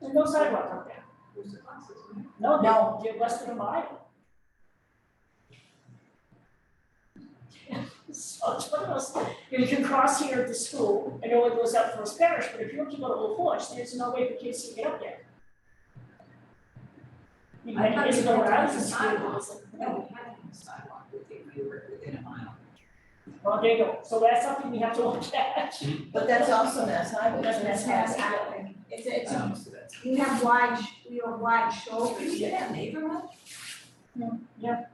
there's no sidewalk up there. No, no, you're less than a mile. So it's one of those, you know, you can cross here at the school, and it only goes up First Parish, but if you want to go to Old Forge, there's no way the kids can get up there. You know, I thought it's you going had around done the the school, sidewalks. No, we had a sidewalk within, we were within a mile. well, there you go, so that's something we have to look at. But that's also Mass Highway. That's Mass Highway. It's, it's Um, almost that. We have wide, we have wide Oh, shoulders. is it that neighborhood? yeah.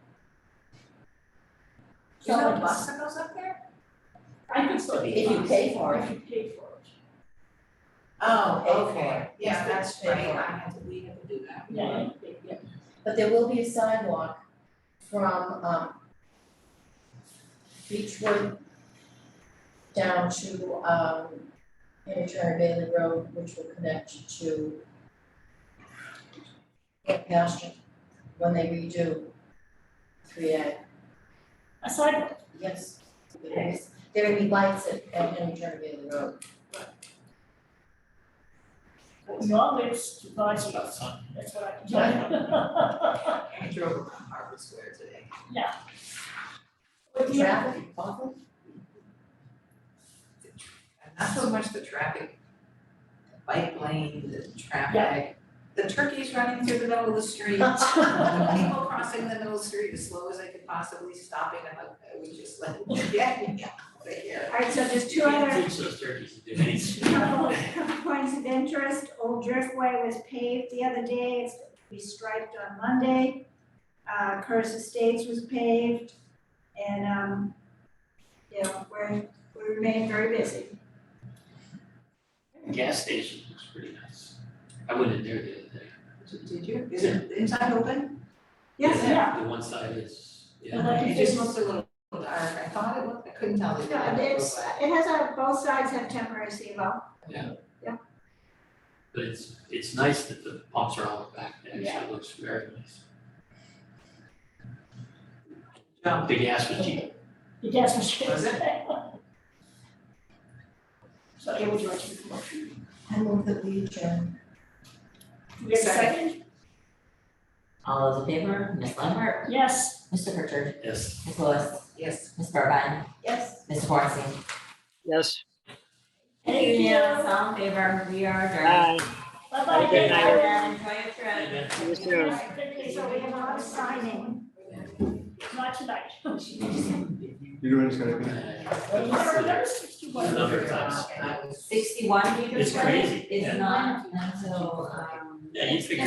Is there a bus that goes up there? I think so. If you pay for it. If you pay for it. Oh, okay, Okay. yeah, that's Right, right. I had to leave it to do that. Yeah, yeah, yeah. But there will be a sidewalk from, um, Beechwood down to, um, Interturn Bailey Road, which will connect to Camp Pasture when they redo three A. A sidewalk, Yes, there is, there will be lights at, at Interturn Bailey Road. knowledge to buy you, that's what I can tell I drove around Harbor Square today. you. But yeah, Traffic, awful. Not so much the traffic, the bike lane, the traffic, the turkeys running through the middle of the street. The people crossing the middle street as slow as they could possibly, stopping and like, we just like, yeah, yeah, over here. Alright, so there's two Can't other teach those turkeys to do anything. couple, couple points of interest. Old Driftway was paved the other day, it's gonna be striped on Monday. Uh, Curse Estates was paved and, um, you know, we're, we remain very busy. Gas station looks pretty nice. I went in there the other day. Did you, is it inside open? Yes, Yeah. The one side is, And yeah, like- It just looks a little dark, I thought it looked, I couldn't tell the yeah, difference. it's, it has a, both sides have temporary CBO. but it's, it's nice that the pumps are all back. It actually looks very nice. The gas was cheap. the gas machine. Was So I would like to make a motion. I move that we adjourn. Do we have a second? All those in favor, Ms. Lambert, Yes. Mr. Pritchard, Yes. Ms. Lewis, Yes. Ms. Burbine, Yes. Mr. Bornstein. Yes. Thank you. Unanimous, all in favor, we are adjourned. Hi. Bye-bye. Have a good night, Everyone, Enjoy your trip. Amen. You too. So we have a lot of signing. Not tonight. You're doing just gonna be. Remember, it's too much. Number of times. Sixty-one meters, It's crazy, It's yeah. not until, um. Yeah, you figure